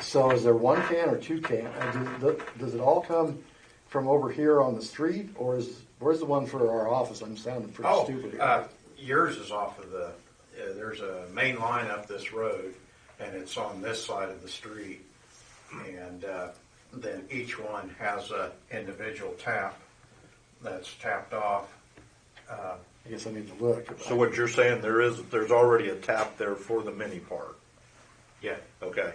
So is there one can or two can? uh, Does the- does it all come from over here on the street or is, where's the one for our office? I'm sounding pretty Oh, stupid here. uh, yours is off of the, uh, there's a main line up this road, and it's on this side of the street. And, uh, then each one has a individual tap that's tapped off. I guess I need to look. So what you're saying, there is, there's already a tap there for the mini part, Yeah. okay?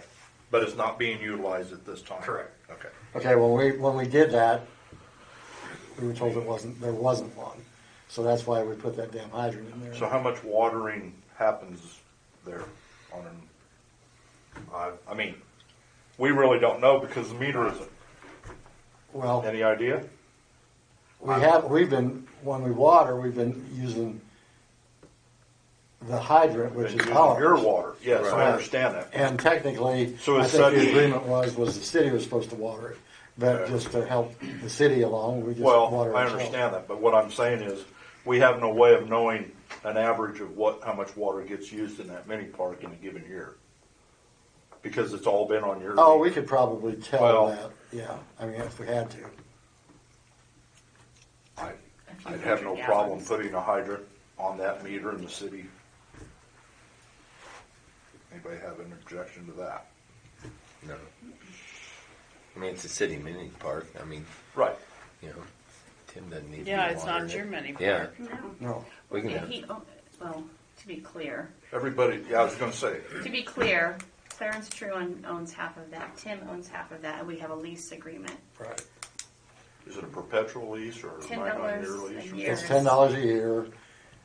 But it's not being utilized at this time? Correct. Okay. Okay, when we, when we did that, we were told it wasn't, there wasn't one. So that's why we put that damn hydrant in there. So how much watering happens there on an, I, I mean, we really don't know because the meter isn't. Well. Any idea? We have, we've been, when we water, we've been using the hydrant, which Been is using ours. Your water, yes, I Right. understand that. And technically, So I it's think the such- agreement was, was the city was supposed to water it. But just to help the city along, we just water Well, I ourselves. understand that, but what I'm saying is, we have no way of knowing an average of what, how much water gets used in that mini park in a given year. Because it's all been on your. Oh, we could probably tell Well- that, yeah, I mean, if we had to. I- I'd have no problem putting a hydrant on that meter in the city. Anybody have an objection to that? No. I mean, it's a city mini park. I mean, Right. you know, Tim doesn't need. to Yeah, be it's not watering your it. mini Yeah, park. No, we can. Yeah, he, oh, well, to be clear, Everybody, yeah, I was gonna say, to be clear, Clarence Truon owns half of that, Tim owns half of that, and we have a lease agreement. right. is it a perpetual lease or a Ten nine-year dollars lease? a or- year. It's ten dollars a year,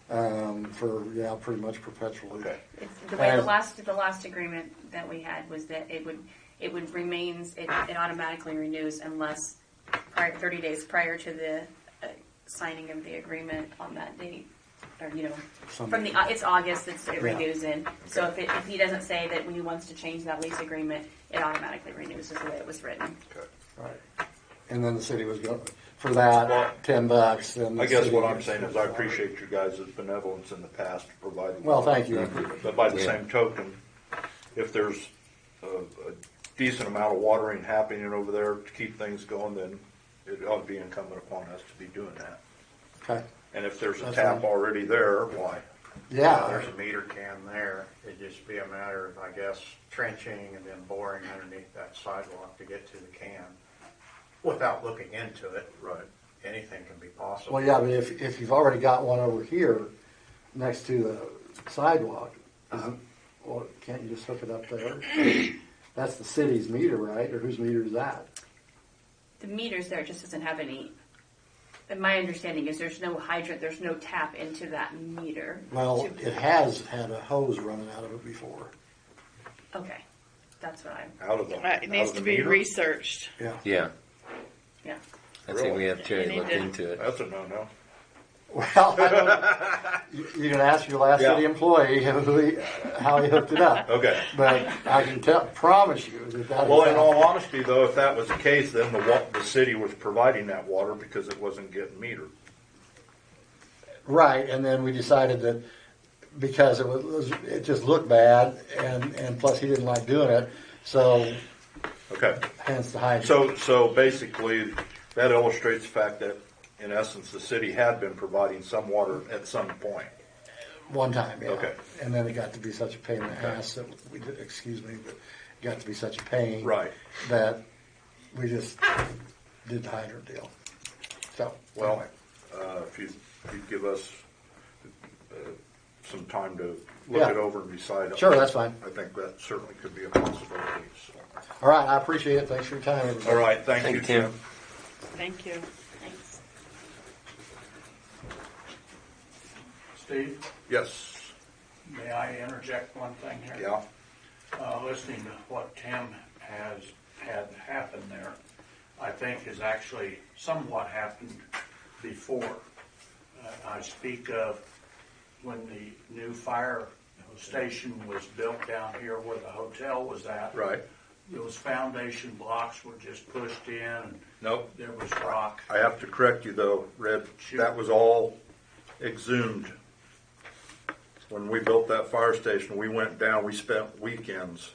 um, for, yeah, pretty much perpetually. Okay, It's, the way the Uh, last, the last agreement that we had was that it would, it would remains, it, it automatically renews unless prior, thirty days prior to the uh, signing of the agreement on that date, or, you know, from the, Some- it's August, it's, it Yeah. renews in. So if it, if he doesn't say that he wants to change that lease agreement, it automatically renews is the way it was written. okay. Right. And then the city was going, for Well, that, ten bucks, then. the I guys city what I'm was- saying is I appreciate you guys' benevolence in the past to providing. Well, thank you. But by the Yeah. same token, if there's a, a decent amount of watering happening over there to keep things going, then it ought to be incumbent upon us to be doing that. Okay, And if there's a That's tap fine. already there, why? yeah. There's a meter can there. It'd just be a matter of, I guess, trenching and then boring underneath that sidewalk to get to the can without looking into it. Right. Anything can be possible. Well, yeah, but if, if you've already got one over here next to the sidewalk, isn't, well, can't you just hook it up there? That's the city's meter, right? Or whose meter is that? The meters there just doesn't have any, and my understanding is there's no hydrant, there's no tap into that meter. Well, To- it has had a hose running out of it before. Okay, that's what I'm, Out of the. Uh, out It of needs the to be meter? researched. Yeah. Yeah, yeah. I think we have Terry Really? look into it. That's a no-no. Well, I don't, you, you can ask your last Yeah. city employee who he, how he hooked it up. Okay. But I can tell, promise you that that is. Well, in not- all honesty, though, if that was the case, then the wa, the city was providing that water because it wasn't getting metered. Right, and then we decided that because it was, it just looked bad, and, and plus he didn't like doing it, so Okay. hence the hydrant. So, so basically, that illustrates the fact that, in essence, the city had been providing some water at some point. One time, yeah. Okay. And then it got to be such a pain in the ass that we did, excuse me, but it got to be such a pain. Right. That we just did the hydrant deal. So, Well, anyway, uh, if you, if you give us uh, some time to look Yeah. it over and decide. Sure, that's fine. I think that certainly could be a possibility, so. all right, I appreciate it. Thanks for your time, everybody. All right, thank Thank you, you, Tim. Tim. Thank you. Thanks. Steve, Yes, may I interject one thing here? yeah, Uh, listening to what Tim has had happen there, I think has actually somewhat happened before. Uh, I speak of when the new fire station was built down here where the hotel was at. right. Those foundation blocks were just pushed in and Nope. there was rock. I have to correct you though, Red, Sure. that was all exhumed. When we built that fire station, we went down, we spent weekends